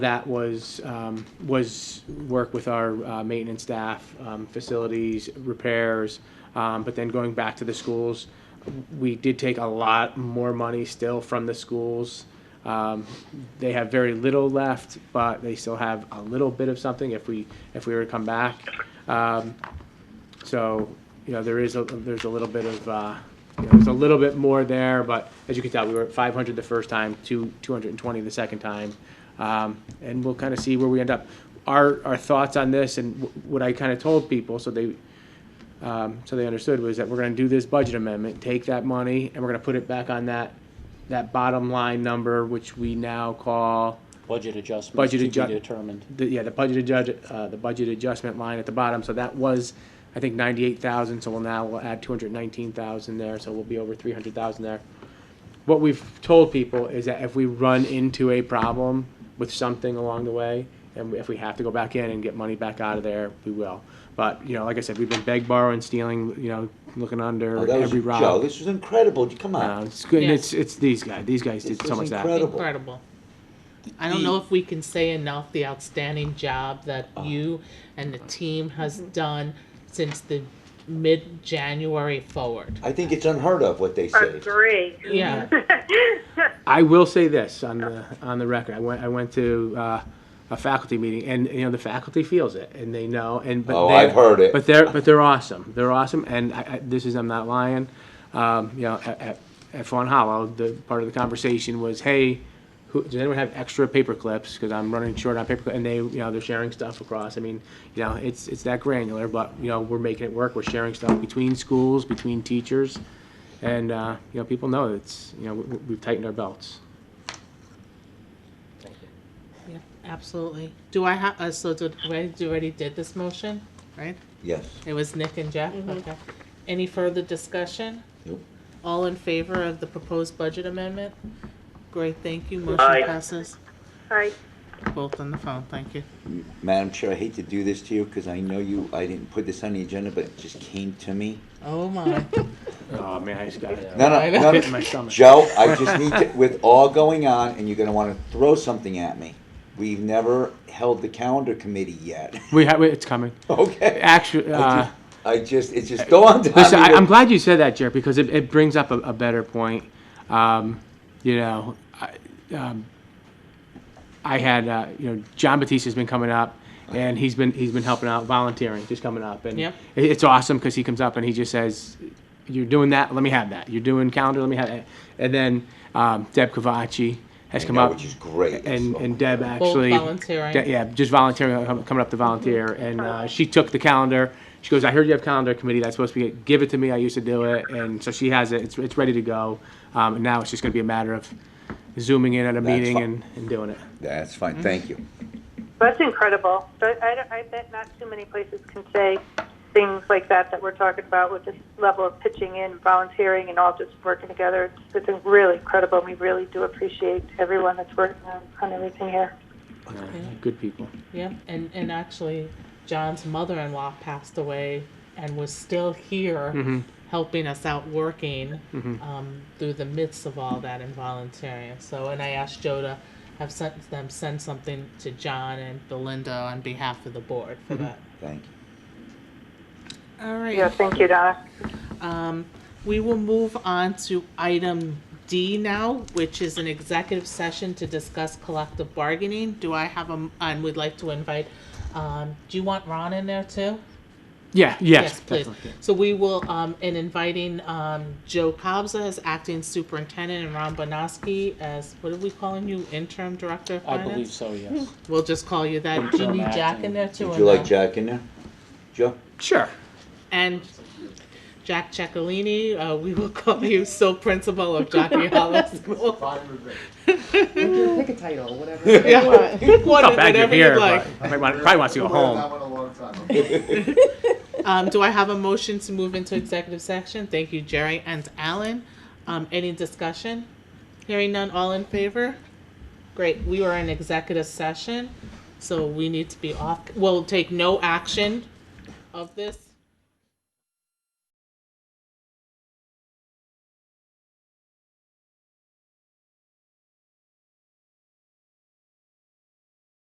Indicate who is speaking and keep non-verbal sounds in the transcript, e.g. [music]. Speaker 1: That was, um, was work with our uh, maintenance staff, um, facilities, repairs, um, but then going back to the schools, we did take a lot more money still from the schools. Um, They have very little left, but they still have a little bit of something if we, if we were to come back. Um, So, you know, there is, a there's a little bit of, uh, you know, there's a little bit more there, but as you can tell, we were at 500 the first time, two 220 the second time. Um, And we'll kind of see where we end up. Our, our thoughts on this and wh- what I kind of told people, so they, um, so they understood, was that we're going to do this budget amendment, take that money, and we're going to put it back on that, that bottom line number, which we now call,
Speaker 2: Budget adjustments.
Speaker 1: Budget
Speaker 2: To
Speaker 1: adju-
Speaker 2: be determined.
Speaker 1: the, yeah, the budget adjust, uh, the budget adjustment line at the bottom, so that was, I think, ninety-eight thousand, so we'll now, we'll add two hundred nineteen thousand there, so we'll be over three hundred thousand there. What we've told people is that if we run into a problem with something along the way, and if we have to go back in and get money back out of there, we will. But, you know, like I said, we've been beg, borrowing, stealing, you know, looking
Speaker 3: Oh,
Speaker 1: under
Speaker 3: that was
Speaker 1: every
Speaker 3: a Joe,
Speaker 1: rock.
Speaker 3: this was incredible. Come
Speaker 1: Uh,
Speaker 3: on.
Speaker 1: it's good, and
Speaker 4: Yeah.
Speaker 1: it's, it's these guys, these guys
Speaker 3: This
Speaker 1: did so
Speaker 3: was
Speaker 1: much of that.
Speaker 3: incredible.
Speaker 4: Incredible. I don't know if we can say enough the outstanding job that you and the team has done since the mid-January forward.
Speaker 3: I think it's unheard of what they say.
Speaker 5: Agree.
Speaker 4: Yeah.
Speaker 1: I will say this on the, on the record. I went, I went to uh, a faculty meeting, and you know the faculty feels it, and they know. And but
Speaker 3: Oh,
Speaker 1: they're-
Speaker 3: I've heard it.
Speaker 1: But they're but they're awesome. They're awesome, and I, I, this is I'm not lying. Um, you know, at, at, at Fawn Hollow, the part of the conversation was, hey. Who, does anyone have extra paper clips? Because I'm running short on paper, clip- and they, you know, they're sharing stuff across. I mean, you know, it's it's that granular, but you know, we're making it work. We're sharing stuff between schools, between teachers, and uh, you know, people know it's you know we, we've tightened our belts.
Speaker 4: Yeah, Absolutely. Do I have, uh, so did, we already did this motion, right?
Speaker 3: Yes.
Speaker 4: It was Nick and Jeff, okay. Any further discussion?
Speaker 3: Nope.
Speaker 4: All in favor of the proposed budget amendment? Great, thank you. Motion
Speaker 2: Aye.
Speaker 4: passes.
Speaker 5: Hi.
Speaker 4: Both on the phone, thank you.
Speaker 3: Madam Chair, I hate to do this to you because I know you, I didn't put this on the agenda, but it just came to me.
Speaker 4: Oh my.
Speaker 1: Oh man, I just got it.
Speaker 3: No,
Speaker 4: I
Speaker 3: no,
Speaker 4: know.
Speaker 3: no,
Speaker 1: Hit in my
Speaker 3: no.
Speaker 1: stomach.
Speaker 3: Joe,
Speaker 1: [laughs]
Speaker 3: I just need to, with all going on, and you're gonna wanna throw something at me. We've never held the calendar committee yet. [laughs]
Speaker 1: We have it's coming.
Speaker 3: Okay?
Speaker 1: Actually, uh,
Speaker 3: I just, it just dawned on me.
Speaker 1: listen, I,
Speaker 3: that-
Speaker 1: I'm glad you said that, Jared, because it, it brings up a, a better point. Um, you know, I, um, I had uh, you know John Batista's been coming up, and he's been he's been helping out, volunteering, just coming up, and
Speaker 4: Yep.
Speaker 1: it, it's awesome because he comes up and he just says, "You're doing that, let me have that. You're doing calendar, let me have that." And then um, Deb Cavacci has
Speaker 3: I
Speaker 1: come
Speaker 3: know,
Speaker 1: up,
Speaker 3: Which is great. Oh,
Speaker 1: and,
Speaker 3: So-
Speaker 1: and Deb actually.
Speaker 4: volunteering.
Speaker 1: De- Yeah, just volunteering, uh, com- coming up to volunteer, and uh, she took the calendar. She goes, "I heard you have calendar committee. That's supposed to be it. Give it to me. I used to do it." And so she has it. It's, it's ready to go. Um, and now it's just going to be a matter of zooming in at a
Speaker 3: That's
Speaker 1: meeting
Speaker 3: fine.
Speaker 1: and, and doing it.
Speaker 3: That's
Speaker 1: Mm-hmm.
Speaker 3: fine, thank you.
Speaker 5: That's incredible. But I, I bet not too many places can say things like that that we're talking about with this level of pitching in, volunteering, and all just working together. It's, it's really incredible. We really do appreciate everyone that's working on, on everything here.
Speaker 1: Uh, good people.
Speaker 4: Yeah, and, and actually, John's mother-in-law passed away and was still here helping us out working um, through the midst of all that and volunteering. So, and I asked Joe to have sent them send something to John and Belinda on behalf of the board for that.
Speaker 3: Thank you.
Speaker 4: All right.
Speaker 5: Yeah, thank you, Donna.
Speaker 4: Um, we will move on to item D now, which is an executive session to discuss collective bargaining. Do I have a, and we'd like to invite, um, do you want Ron in there too?
Speaker 1: Yeah. Yes.
Speaker 4: please.
Speaker 1: definitely.
Speaker 4: So we will, um, in inviting, um, Joe Cobza as acting superintendent and Ron Bonoski as, what are we calling you, interim director of
Speaker 2: I
Speaker 4: finance?
Speaker 2: believe so, yes.
Speaker 4: We'll just call you that. Do you
Speaker 2: Interim
Speaker 4: need Jack
Speaker 2: acting.
Speaker 4: in there too?
Speaker 3: Would
Speaker 4: or
Speaker 3: you like
Speaker 4: no?
Speaker 3: Jack in there? Joe?
Speaker 1: Sure.
Speaker 4: And Jack Ciccolini, uh, we will [laughs] call you sole principal of Jockey Hollow School.
Speaker 6: Pick a title, whatever.
Speaker 4: Yeah, pick one,
Speaker 1: Not bad you're
Speaker 4: [laughs] whatever you'd
Speaker 1: here,
Speaker 4: like.
Speaker 1: but might want, [laughs] probably wants to go home.
Speaker 4: Um, do I have a motion to move into executive section? Thank you, Jerry and Alan. Um, any discussion? Hearing none, all in favor? Great, we are in executive session, so we need to be off, we'll take no action of this.